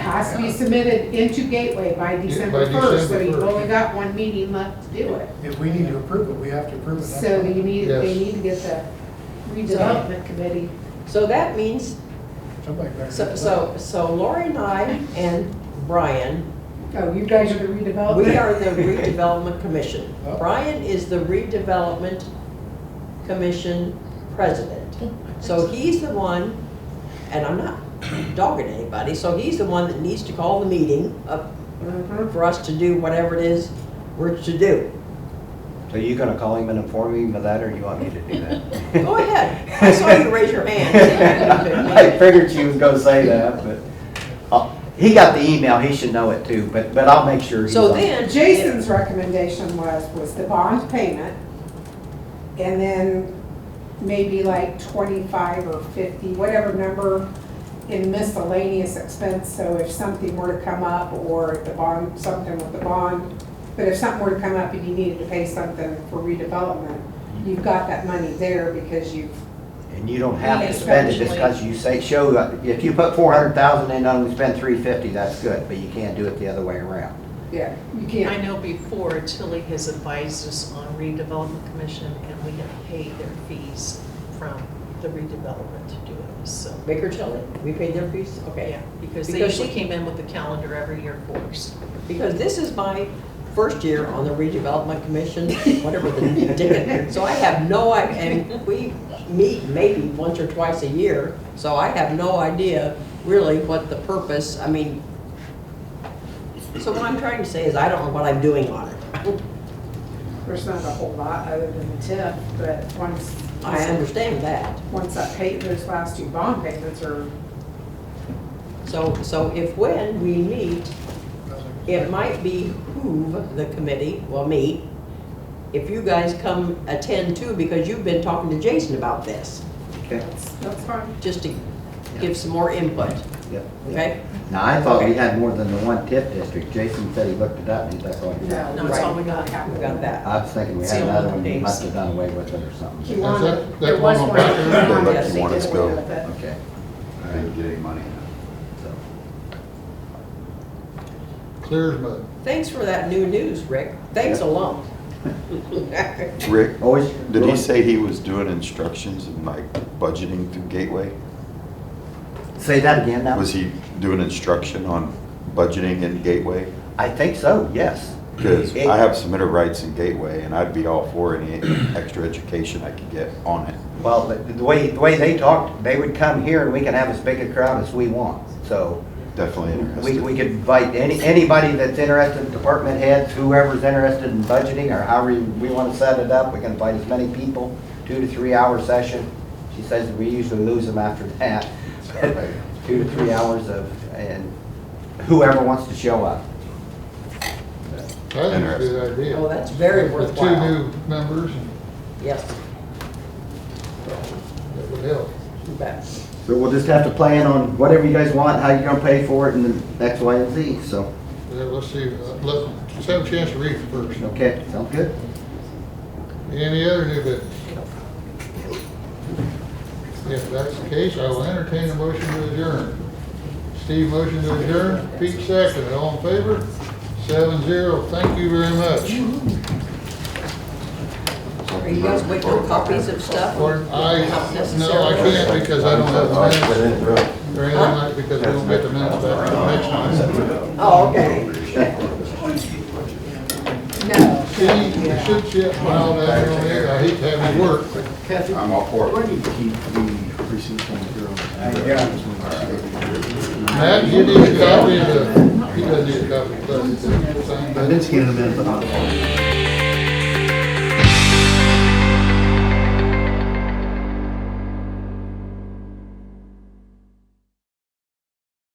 has to be submitted into Gateway by December by first, so you've December 1st. only got one meeting left to do it. If we need to approve it, we have to approve it. that's So all. you need, they Yes. need to get the redevelopment committee. So that means, Somebody better. so, so so Lori and I and Brian, Oh, you guys are the we redevelopment? are the redevelopment commission. Oh. Brian is the redevelopment commission president. So he's the one, and I'm not dogging anybody, so he's the one that needs to call the meeting up Mhm. for us to do whatever it is we're to do. Are you gonna call him and inform him of that, or you want me to do that? Go ahead. I saw you raise your I hand. figured you was gonna say that, but, uh, he got the email, he should know it too, but, but I'll make sure. he's on So it. then. Jason's recommendation was, was the bond payment, and then maybe like twenty-five or fifty, whatever number in miscellaneous expense, so if something were to come up, or if the bond, something with the bond, but if something were to come up and you needed to pay something for redevelopment, you've got that money there because you've, And you don't have to spend it just because you say, show, uh, if you put four hundred thousand in, only spend three fifty, that's good, but you can't do it the other way around. yeah, you I can't. know before Tilly has advised us on redevelopment commission and we have paid their fees from the redevelopment to do it, so. Baker Tilly, we paid their fees, okay. Yeah, because they Because usually she- came in with a calendar every year for us. Because this is my first year on the redevelopment commission, whatever the ticket. So I have no, i- and we meet maybe once or twice a year, so I have no idea really what the purpose, I mean. So what I'm trying to say is I don't know what I'm doing on it. There's not a whole lot other than the tip, but once. I understand that. Once that pay, those last two bond payments are So, so if when we meet, it might behoove the committee, well, me, if you guys come attend too, because you've been talking to Jason about this, Okay. That's fine. just to give some more input, Yep. okay? Now, I thought he had more than the one tip district, Jason said he looked it up, and he's like, oh, yeah. No, No, it's all we got. We got that. I was thinking we It's had the another only one, he things. must have done away with it or something. that- Kiwanis, that there one was on one. back there? Kiwanis, They let they Kiwanis did go. away with it. Okay. All Didn't right, get any money now. so. Clear as mud. Thanks for that new news, Rick. Thanks a lot. Rick, Always. did he say he was doing instructions and like budgeting through Gateway? Say that again now? Was he doing instruction on budgeting in Gateway? I think so, yes. Because It- I have submitted rights in Gateway and I'd be all for any extra education I could get on it. Well, the the way, the way they talked, they would come here and we can have as big a crowd as we want, so. Definitely We, we interested. could invite any, anybody that's interested, department heads, whoever's interested in budgeting or however we want to set it up, we can invite as many people, two to three hour session. She says we usually lose them after that, two to three hours of, and whoever wants to show up. I think it's a good idea. Oh, that's very With worthwhile. Two new members, and Yes, that would help. you bet. So we'll just have to plan on whatever you guys want, how you're gonna pay for it and the X, Y, and Z, so, Yeah, let's see, uh, let, let's have a chance to read it first. okay, sound good? Any other new business? If that's the case, I will entertain a motion to adjourn. Steve motion to adjourn, Pete second, all in favor? Seven zero, thank you very Mm-hmm. much. Are you guys waiting for copies of stuff? Or I, Not no, I necessarily. can't because I don't have Oh, the minutes or anything like, because we don't get the minutes back till next time. Oh, okay. No. See, you should chip all that on there, I hate to have you work, but Kathy, I'm all for it. where do you keep the receipts on the girl? Matt, you need a copy of the, he doesn't need a copy of the, I did scan them in, but not all.